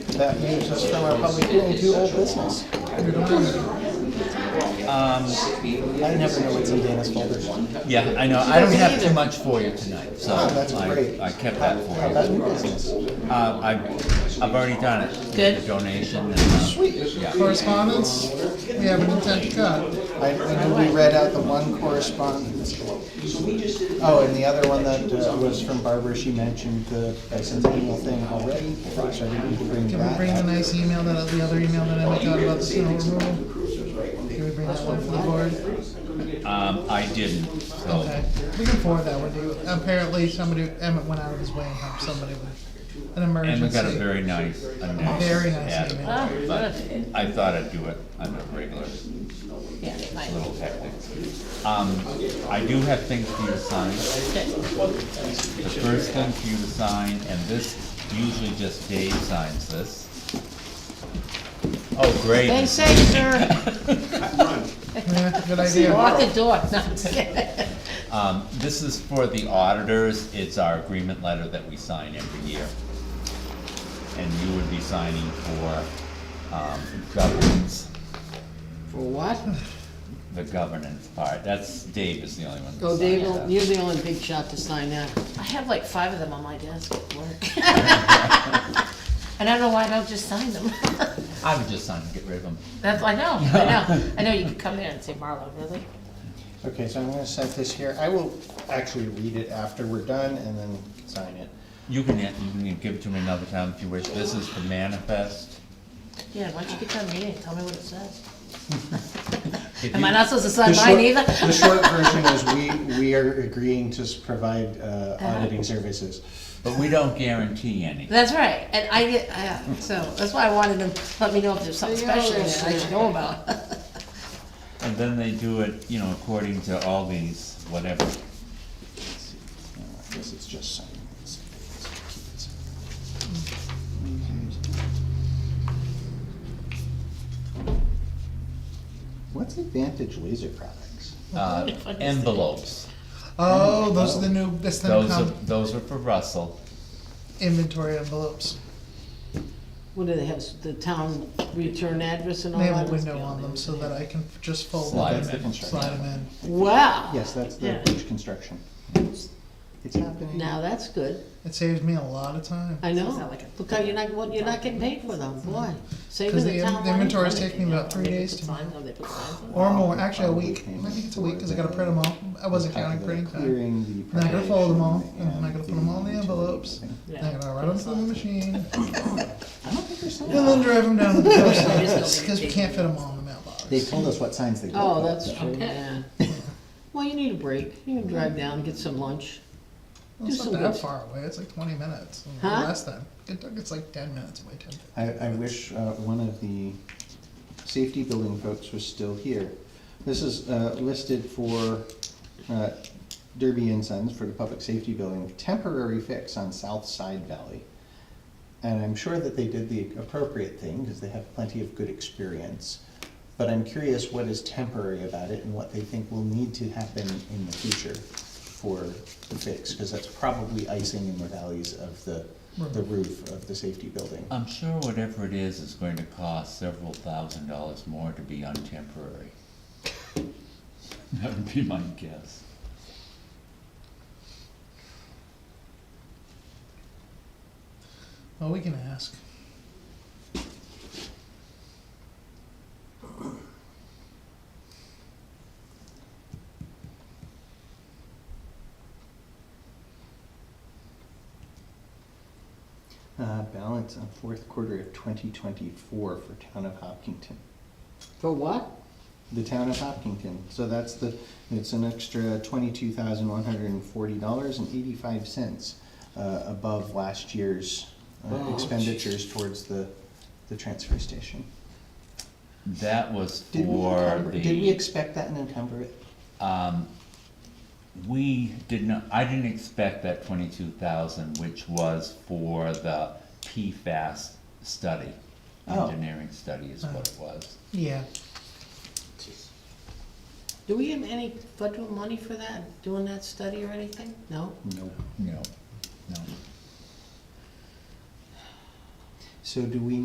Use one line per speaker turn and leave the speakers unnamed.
that news, that's from our public hearing to old business.
Um,
I never know what's in Dana's folder.
yeah, I know, I don't have too much for you tonight, so
Oh, that's
I,
great. Oh,
I kept that for
How about
you.
new business?
Uh, I, I've already done it.
Good.
The Donation and, uh,
Sweet.
yeah.
Correspondence, we have an intent to cut.
I, I know we read out the one correspondence. Oh, and the other one that uh, was from Barbara, she mentioned the bicentennial thing already, so I didn't bring
Can we
that
bring the
up.
nice email that, the other email that Emmett got about the snow removal? Can we bring that one for the board?
Um, I didn't, so.
Okay, we can forward that one to you. Apparently, somebody, Emmett went out of his way and helped somebody with an
And
emergency.
we got a very nice, a nice.
Very nice
ad,
email.
Ah,
But
good.
I thought I'd do it on a regular,
Yeah, fine.
little tactic. Um, I do have things for you to sign.
Good.
The first thing for you to sign, and this, usually just Dave signs this. Oh, great.
They say, sir,
Yeah, good
walk
idea.
the door, no, I'm just kidding.
Um, this is for the auditors, it's our agreement letter that we sign every year. And you would be signing for, um, governance,
For what?
the governance part, that's, Dave is the only one that
Go
signs
Oh, Dave,
that.
you're the only big shot to sign that.
I have like five of them on my desk at work. And I don't know why I don't just sign them.
I would just sign and get rid of them.
That's, I know, I know, I know you could come in and say Marlo, really?
Okay, so I'm gonna set this here. I will actually read it after we're done and then sign it.
You can, you can give it to me another time if you wish, this is the manifest.
Yeah, why don't you get to a meeting, tell me what it says.
If
Am I
you-
not supposed to
The
sign mine
short-
either?
The short version is we, we are agreeing to s- provide uh, auditing services.
But we don't guarantee any.
That's right, and I get, I, so, that's why I wanted them to let me know if there's something
There you
special in
go.
it I should know about.
And then they do it, you know, according to all these, whatever.
No, I guess it's just signing. this. What's Advantage Laser Products?
Uh, envelopes,
Oh, those are the new, that's the new
those are,
com-
those are for Russell.
inventory envelopes.
What do they have, s- the town return address and all
They have
that?
a window on them so that I can just fold
Slide
them
them
in,
in.
slide them in.
Wow.
Yes, that's the
Yeah.
bridge construction. It's happening.
Now, that's good.
It saves me a lot of time.
I
Sounds
know.
like a-
Look how you're not, well, you're not getting paid for them, boy. Saving
Because the
the
in-
town
the
money.
inventory is taking me about three days to Oh,
Sign them, they put signs on them.
Or more, actually a week, I think it's a week, cause I gotta print them all, I wasn't counting printing uh, time.
Clearing the
And I gotta fold them all,
preparation
and then I gotta put them all in the
and
envelopes,
everything.
and I gotta write them to the machine, and
I don't think there's some.
then drive them down to the post office, cause we can't fit them all in the mailbox.
They told us what signs they go.
Oh,
for,
that's
though.
true, yeah. Well, you need a break. You can drive down, get some lunch.
Well, It's not
do some
that
good.
far away, it's like twenty minutes, or
Huh?
less than, It took- it's like ten minutes away, ten.
I, I wish uh, one of the safety building folks was still here. This is uh, listed for uh, Derby and Sons for the public safety building, temporary fix on South Side Valley. And I'm sure that they did the appropriate thing, because they have plenty of good experience. But I'm curious what is temporary about it and what they think will need to happen in the future for the fix, because that's probably icing in the valleys of the, the roof of the safety building.
I'm sure whatever it is, is going to cost several thousand dollars more to be untemporary. That would be my guess.
Well, we can ask.
Uh, balance on fourth quarter of twenty twenty-four for town of Hopkinton,
For what?
the town of Hopkinton, so that's the, it's an extra twenty-two thousand one hundred and forty dollars and eighty-five cents, uh, above last year's uh,
Oh,
expenditures towards the, the transfer station.
That was
Did we
for
encumber, did we
the,
expect that and encumber it?
um, we did not, I didn't expect that twenty-two thousand, which was for the PFAS study.
Oh.
Engineering study is what it was.
Yeah,
Do we have any federal money for that, doing that study or anything? No?
No.
No, no.
So do we